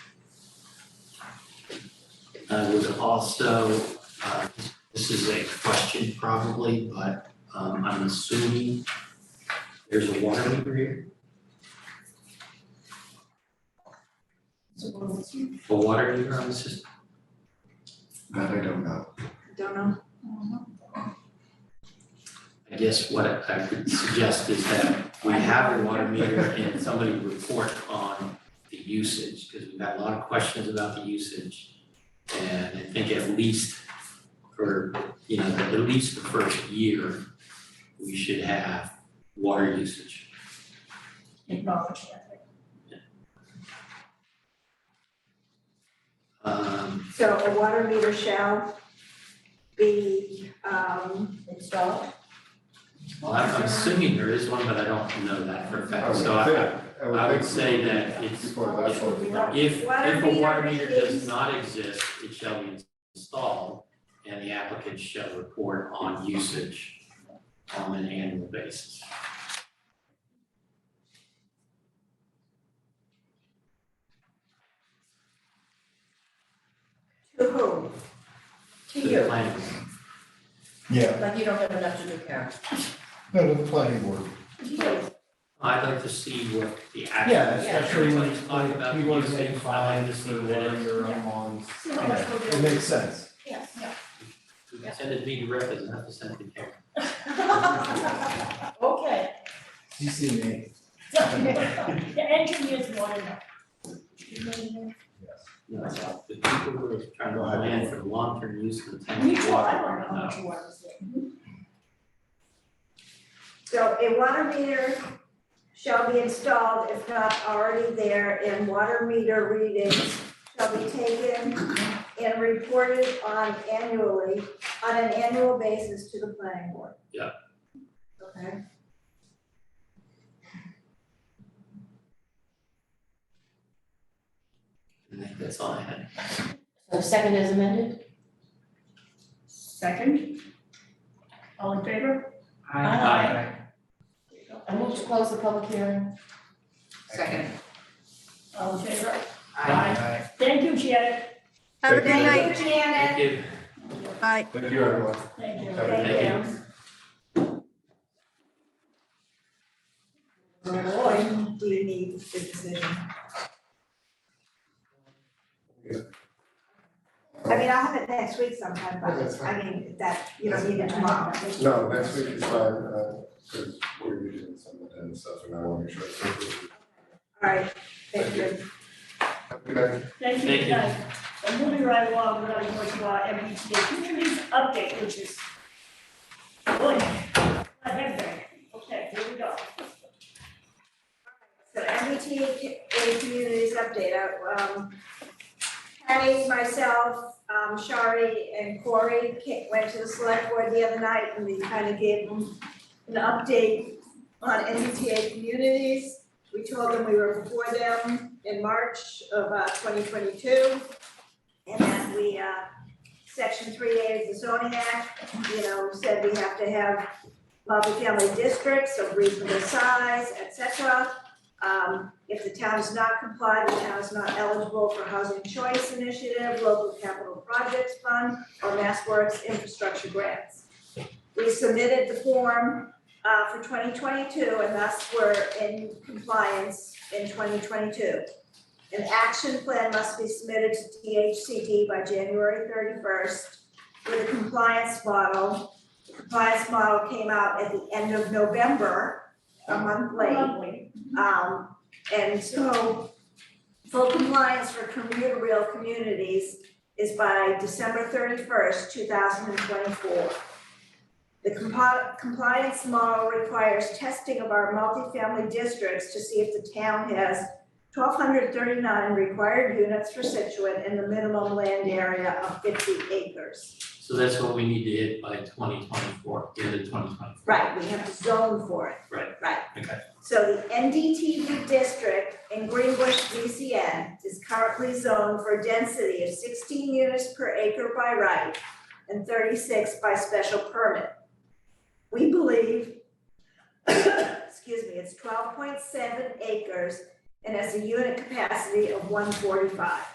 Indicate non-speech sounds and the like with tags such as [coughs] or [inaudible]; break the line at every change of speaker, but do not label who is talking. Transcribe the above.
I would Uh, also, uh, this is a question probably, but um, I'm assuming there's a water meter here, a water meter on the system.
That I don't know.
Don't know.
I guess what I would suggest is that we have a water meter and somebody report on the usage, because we've got a lot of questions about the usage. And I think at least for, you know, at least the first year, we should have water usage.
Acknowledge that.
Um,
So a water meter shall be, um,
Installed.
well, I'm I'm assuming there is one, but I don't know that for a
Oh,
fact, so
I would
I,
think,
I would
think
say that it's,
Before that, sort of-
if,
Water
if a water
meter
meter does
is-
not exist, it shall be installed, and the applicant shall report on usage on an annual basis.
to whom?
To
The
you,
planning board.
yeah,
like you don't have enough to do, Karen.
no, the planning board.
You.
I'd like to see what the actual.
Yeah, especially when
Let's talk about
you want to
usage.
make
I'd like
five,
to see
for
what
water
it-
your own lawns.
See how much we'll
It
do.
makes sense.
Yes,
you Send it to me directly, doesn't have to send it to
[laughs]
Karen.
yeah. [laughs] Okay.
You see me?
The engineers want to know.
No, it's not. the people who are trying to
Right.
plan for the long-term use of the town.
Me too, I
water
want to know how
department,
much water is there.
So a water meter shall be installed if not already there, and water meter readings shall be taken and reported on annually, on an annual basis to the planning board.
Yeah.
Okay.
no. I think that's all I had.
So the second is amended?
Second. All in favor?
Aye.
I move to close the public hearing.
Second.
All in favor?
Aye.
Thank you, Janet.
Have a good night.
Thank you, Janet.
Thank you.
Thank you, everyone.
Thank you.
Thank
you.
When do you need the decision? I mean, I'll have it next week sometime,
Okay, that's
but
fine.
I mean, that, you don't need it tomorrow.
No, next week is fine, uh, because we're usually some of and stuff, and I want to make sure. it's approved.
All right, thank you.
Have a good night.
Thank
Thank
you, good
you.
night. And moving right along, we're going to our MBTA communities update, which is. Boy, I have that. Okay, here we go.
So MBTA Communities Update, I, um, Patty, myself, um, Shari and Corey ca- went to the select board the other night and we kind of gave them an update on MBTA communities. We told them we were before them in March of, uh, twenty twenty-two. And that we, uh, section three A of the zoning act, you know, said we have to have multifamily districts of reasonable size, et cetera. Um, if the town is not complied, the town is not eligible for Housing Choice Initiative, Local Capital Projects Fund, or Mass Works Infrastructure Grants. We submitted the form, uh, for twenty twenty-two, and thus we're in compliance in twenty twenty-two. An action plan must be submitted to DHCD by January thirty-first with a compliance model. The compliance model came out at the end of November, a month late.
Lovely.
Um, and so full compliance for commuter rail communities is by December thirty-first, two thousand and twenty-four. The compi- compliance model requires testing of our multifamily districts to see if the town has twelve hundred thirty-nine required units for Situate and the minimum land area of fifty acres.
So that's what we need to hit by twenty twenty-four, the end of twenty twenty-four.
Right, we have to zone for it.
Right.
Right.
Okay.
So the NDTV district in Greenbush, VCN is currently zoned for a density of sixteen units per acre by right and thirty-six by special permit. We believe, [coughs] excuse me, it's twelve point seven acres and has a unit capacity of one forty-five.